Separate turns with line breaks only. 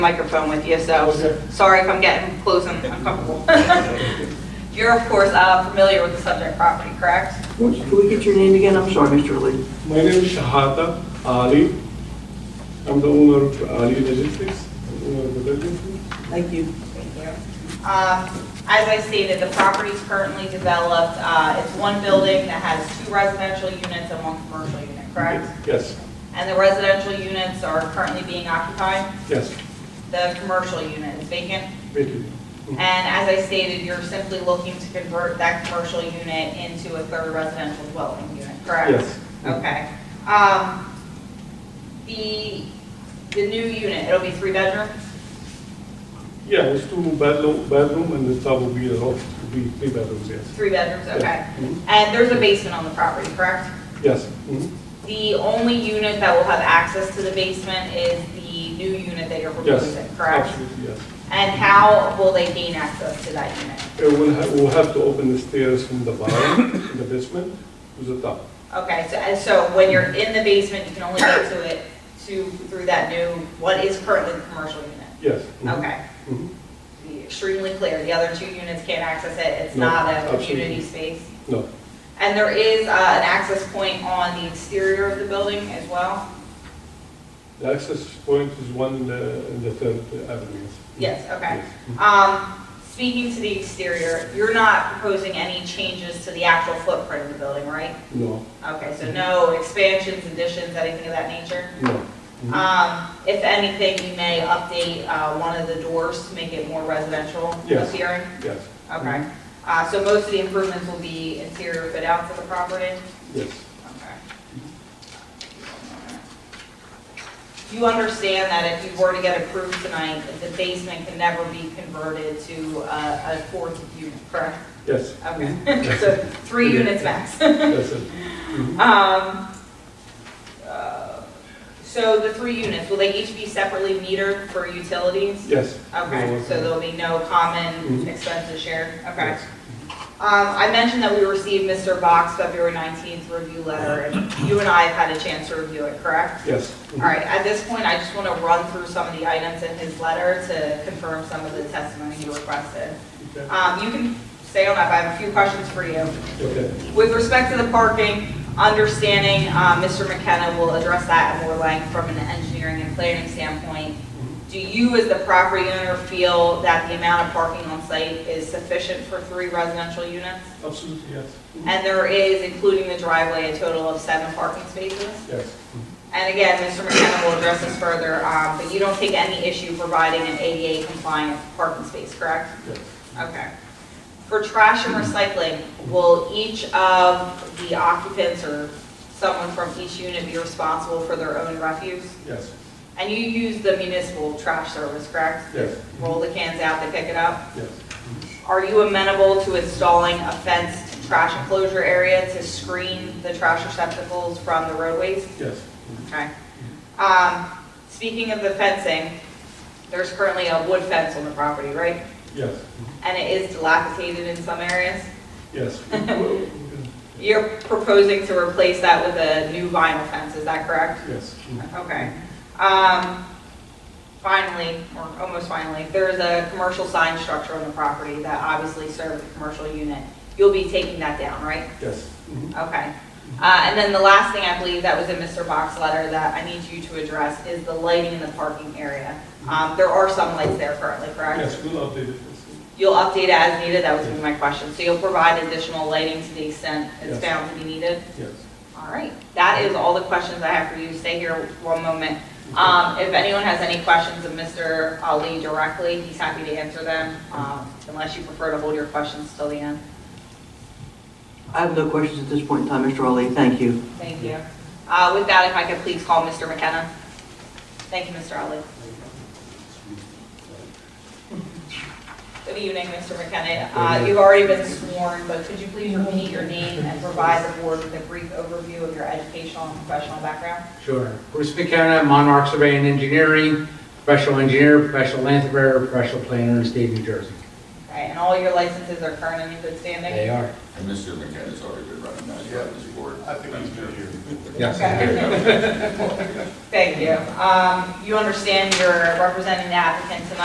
microphone with you, so
Okay.
sorry if I'm getting close and uncomfortable. You're, of course, uh, familiar with the subject property, correct?
Can we get your name again? I'm sorry, Mr. Lee.
My name is Shahada Ali. I'm the owner of Ali Logistics, I'm owner of the building.
Thank you.
Thank you. Uh, As I stated, the property is currently developed. Uh, It's one building that has two residential units and one commercial unit, correct?
Yes,
And the residential units are currently being occupied.
yes,
The commercial unit is vacant.
vacant.
And as I stated, you're simply looking to convert that commercial unit into a third residential dwelling unit, correct?
Yes.
Okay. Um, The, the new unit, it'll be three bedroom?
Yeah, it's two bedroom, bedroom and the top will be a loft, will be three bedrooms, yes.
Three bedrooms, okay.
Yeah. Mhm.
And there's a basement on the property, correct?
Yes, mhm.
The only unit that will have access to the basement is the new unit that you're
yes.
proposing, correct?
Absolutely, yes.
And how will they gain access to that unit?
Uh, We'll have, we'll have to open the stairs from the bottom, the basement, to the top.
Okay, so, and so when you're in the basement, you can only get to it to, through that new, what is currently the commercial unit?
Yes. mhm.
Okay,
Mhm.
Be extremely clear, the other two units can't access it, it's
No,
not a
absolutely.
community space.
No,
And there is, uh, an access point on the exterior of the building as well?
Mm-hmm. the access point is one in the, in the third avenue. yes.
Yes, okay.
Yes.
Um, speaking to the exterior, you're not proposing any changes to the actual footprint of the building, right?
Mm-hmm. No,
Okay, so no expansions, additions, anything of that nature?
no. Mhm.
Um, If anything, you may update uh, one of the doors to make it more residential
Yes.
appearing?
Yes,
Okay. Uh, So most of the improvements will be interior fit out for the property?
yes.
Okay. You understand that if you were to get approved tonight, the basement can never be converted to uh, a fourth unit, correct?
Yes,
Okay, so three units max.
that's it. Mm-hmm.
Um, uh, So the three units, will they each be separately metered for utilities?
Yes.
Okay, so there'll be no common
Mhm.
expenses shared, okay.
Yes.
Um, I mentioned that we received Mr. Box February 19th review letter, and you and I have had a chance to review it, correct?
Yes.
All right, at this point, I just want to run through some of the items in his letter to confirm some of the testimony he requested.
Okay.
Um, You can stay on up, I have a few questions for you.
Okay,
With respect to the parking, understanding, uh, Mr. McKenna will address that at more length from an engineering and planning standpoint.
Mm-hmm.
Do you, as the property owner, feel that the amount of parking on site is sufficient for three residential units?
absolutely, yes. Mm-hmm.
And there is, including the driveway, a total of seven parking spaces?
Yes, Mm-hmm.
And again, Mr. McKenna will address this further, um, but you don't take any issue providing an ADA compliant parking space, correct?
yes,
Okay. For trash and recycling, will each of the occupants or someone from each unit be responsible for their own refuse?
yes,
And you use the municipal trash service, correct?
yes, Mm-hmm.
Roll the cans out, they pick it up?
yes.
Are you amenable to installing a fenced trash enclosure area to screen the trash receptacles from the roadways?
Yes, Mm-hmm.
Okay. Um, Speaking of the fencing, there's currently a wood fence on the property, right?
yes, Mm-hmm.
And it is dilapidated in some areas?
yes. Mm-hmm.
You're proposing to replace that with a new vinyl fence, is that correct?
Yes. Mm-hmm.
Okay. Um, Finally, or almost finally, there is a commercial sign structure on the property that obviously serves the commercial unit. You'll be taking that down, right?
Yes, Mm-hmm.
Okay. Uh, And then the last thing I believe that was in Mr. Box's letter that I need you to address is the lighting in the parking area. Um, There are some lights there currently, correct?
yes, we'll update it.
You'll update as needed, that was gonna be my question. So you'll provide additional lighting to the extent it's
Yes.
found to be needed?
Yes.
All right, that is all the questions I have for you. Stay here one moment. Um, If anyone has any questions of Mr. Ali directly, he's happy to answer them, um, unless you prefer to hold your questions till the end.
I have no questions at this point in time, Mr. Ali. Thank you.
Thank you. Uh, With that, if I could please call Mr. McKenna. Thank you, Mr. Ali. Good evening, Mr. McKenna. Uh, You've already been sworn, but could you please repeat your name and provide the board with a brief overview of your educational and professional background?
Sure. Bruce McKenna, Monarch Survey and Engineering, professional engineer, professional land surveyor, professional planner in the state of New Jersey.
Okay. right? And all your licenses are current and in good standing?
They are.
And Mr. McKenna's already been running that, yeah, this board.
I think he's been here.
Okay. Thank you. Um, You understand you're representing the applicant tonight.